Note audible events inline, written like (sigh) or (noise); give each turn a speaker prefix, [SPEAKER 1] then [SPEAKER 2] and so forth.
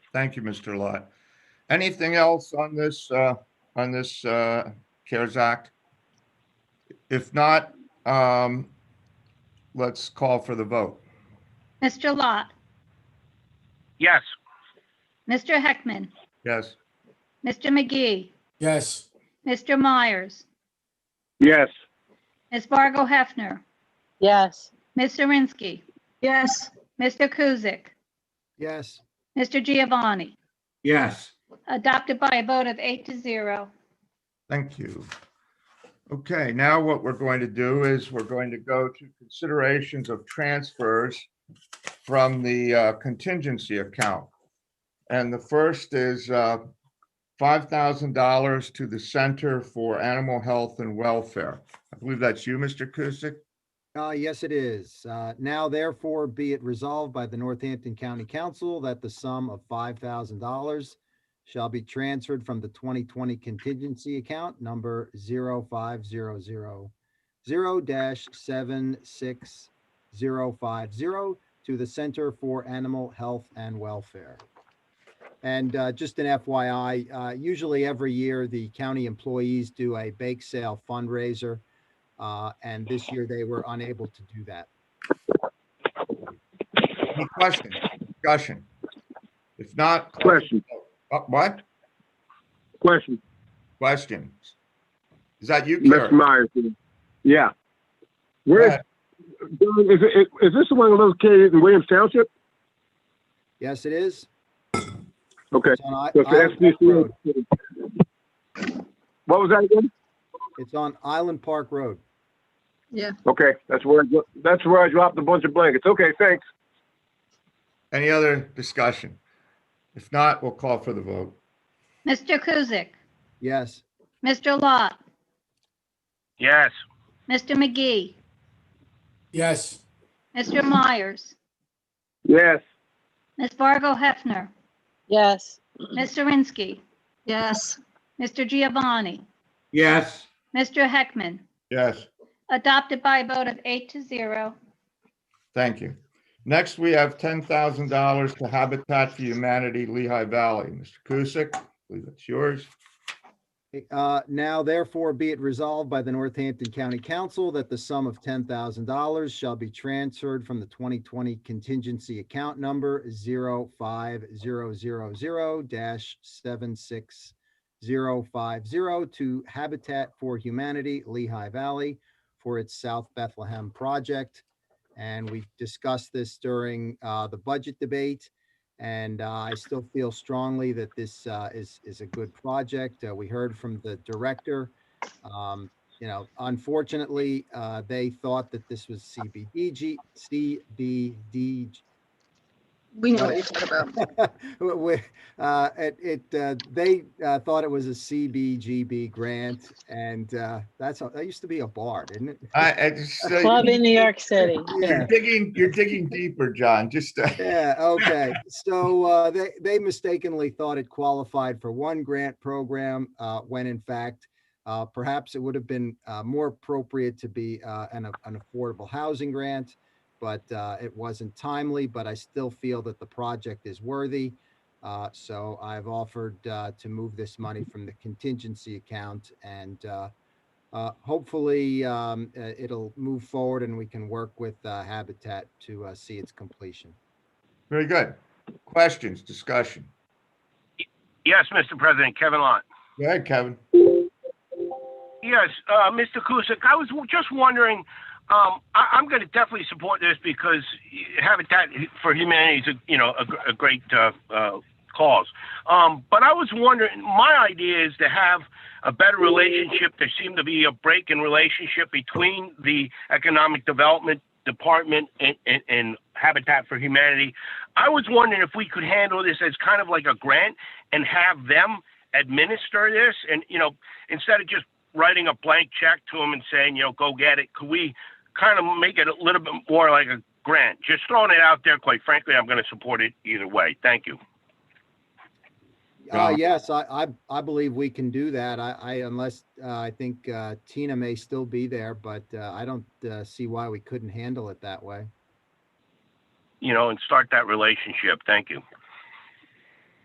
[SPEAKER 1] Thank you, Mr. Lot. Anything else on this, uh, on this, uh, CARES Act? If not, um, let's call for the vote.
[SPEAKER 2] Mr. Lot,
[SPEAKER 3] Yes.
[SPEAKER 2] Mr. Heckman,
[SPEAKER 1] Yes,
[SPEAKER 2] Mr. McGee,
[SPEAKER 4] Yes.
[SPEAKER 2] Mr. Myers,
[SPEAKER 3] Yes.
[SPEAKER 2] Ms. Fargo Hefner,
[SPEAKER 5] Yes.
[SPEAKER 2] Ms. Zirinsky,
[SPEAKER 5] Yes.
[SPEAKER 2] Mr. Kuzic,
[SPEAKER 4] Yes.
[SPEAKER 2] Mr. Giovanni,
[SPEAKER 4] Yes.
[SPEAKER 2] adopted by a vote of eight to zero.
[SPEAKER 1] thank you. Okay, now what we're going to do is we're going to go to considerations of transfers from the uh, contingency account. And the first is, uh, five thousand dollars to the Center for Animal Health and Welfare. I believe that's you, Mr. Kuzic?
[SPEAKER 6] Uh, yes, it is. Uh, now therefore be it resolved by the Northampton County Council that the sum of five thousand dollars shall be transferred from the twenty twenty contingency account number zero five zero zero zero dash seven six zero five zero to the Center for Animal Health and Welfare. And uh, just an FYI, uh, usually every year, the county employees do a bake sale fundraiser. Uh, and this year they were unable to do that.
[SPEAKER 1] Any questions, discussion? If not,
[SPEAKER 3] Question,
[SPEAKER 1] uh, what?
[SPEAKER 3] question.
[SPEAKER 1] Questions? Is that you,
[SPEAKER 3] Mr.
[SPEAKER 1] Karen?
[SPEAKER 3] Myers. Yeah.
[SPEAKER 1] Go
[SPEAKER 3] Where is,
[SPEAKER 1] ahead.
[SPEAKER 3] John, is, it- is this the one located in Williams Township?
[SPEAKER 6] Yes, it is.
[SPEAKER 3] Okay.
[SPEAKER 6] It's on I-
[SPEAKER 3] So if
[SPEAKER 6] Island
[SPEAKER 3] it's
[SPEAKER 6] Park Road.
[SPEAKER 3] SDC What was that again?
[SPEAKER 6] It's on Island Park Road.
[SPEAKER 3] Okay, that's where, I dro- that's where I dropped a bunch of blankets. Okay, thanks.
[SPEAKER 1] Any other discussion? If not, we'll call for the vote.
[SPEAKER 2] Mr. Kuzic,
[SPEAKER 6] Yes,
[SPEAKER 2] Mr. Lot,
[SPEAKER 3] Yes.
[SPEAKER 2] Mr. McGee,
[SPEAKER 4] Yes.
[SPEAKER 2] Mr. Myers,
[SPEAKER 3] Yes.
[SPEAKER 2] Ms. Fargo Hefner,
[SPEAKER 5] Yes.
[SPEAKER 2] Ms. Zirinsky,
[SPEAKER 5] Yes.
[SPEAKER 2] Mr. Giovanni,
[SPEAKER 4] Yes.
[SPEAKER 2] Mr. Heckman,
[SPEAKER 1] Yes,
[SPEAKER 2] adopted by a vote of eight to zero.
[SPEAKER 1] thank you. Next, we have ten thousand dollars to Habitat for Humanity Lehigh Valley. Mr. Kusick, I believe that's yours.
[SPEAKER 6] Uh, Now therefore be it resolved by the Northampton County Council that the sum of ten thousand dollars shall be transferred from the twenty twenty contingency account number zero five zero zero zero dash seven six zero five zero to Habitat for Humanity Lehigh Valley for its South Bethlehem project. And we discussed this during uh, the budget debate. And uh, I still feel strongly that this uh, is, is a good project. Uh, We heard from the director. Um, You know, unfortunately, uh, they thought that this was CBDG, CBDG,
[SPEAKER 5] We know what you're talking about.
[SPEAKER 6] (laughs) w- w- uh, it, it, uh, they, uh, thought it was a CBGB grant and, uh, that's, a- that used to be a bar, didn't it?
[SPEAKER 1] I, I just, uh,
[SPEAKER 5] Club in New York City.
[SPEAKER 1] you're digging, you're digging deeper, John, just, uh,
[SPEAKER 6] (laughs) Yeah, okay. So, uh, they, they mistakenly thought it qualified for one grant program, uh, when in fact, uh, perhaps it would have been, uh, more appropriate to be, uh, an, a- an affordable housing grant. But, uh, it wasn't timely, but I still feel that the project is worthy. Uh, so I've offered, uh, to move this money from the contingency account and, uh, uh, hopefully, um, uh, it'll move forward and we can work with, uh, Habitat to, uh, see its completion.
[SPEAKER 1] very good. Questions, discussion?
[SPEAKER 7] Yes, Mr. President, Kevin Lott.
[SPEAKER 1] Go ahead, Kevin.
[SPEAKER 7] Yes, uh, Mr. Kusick, I was w- just wondering, um, I, I'm going to definitely support this because Habitat for Humanity is, a, you know, a, gr- a great uh, uh, cause. Um, but I was wondering, my idea is to have a better relationship. There seemed to be a break in relationship between the Economic Development Department and, and, and Habitat for Humanity. I was wondering if we could handle this as kind of like a grant and have them administer this and, you know, instead of just writing a blank check to them and saying, you know, go get it. Could we kind of make it a little bit more like a grant? Just throwing it out there, quite frankly, I'm going to support it either way. Thank you.
[SPEAKER 6] Uh,
[SPEAKER 1] Got it.
[SPEAKER 6] yes, I, I, I believe we can do that. I, I, unless, uh, I think, uh, Tina may still be there, but, uh, I don't, uh, see why we couldn't handle it that way.
[SPEAKER 7] You know, and start that relationship. Thank you.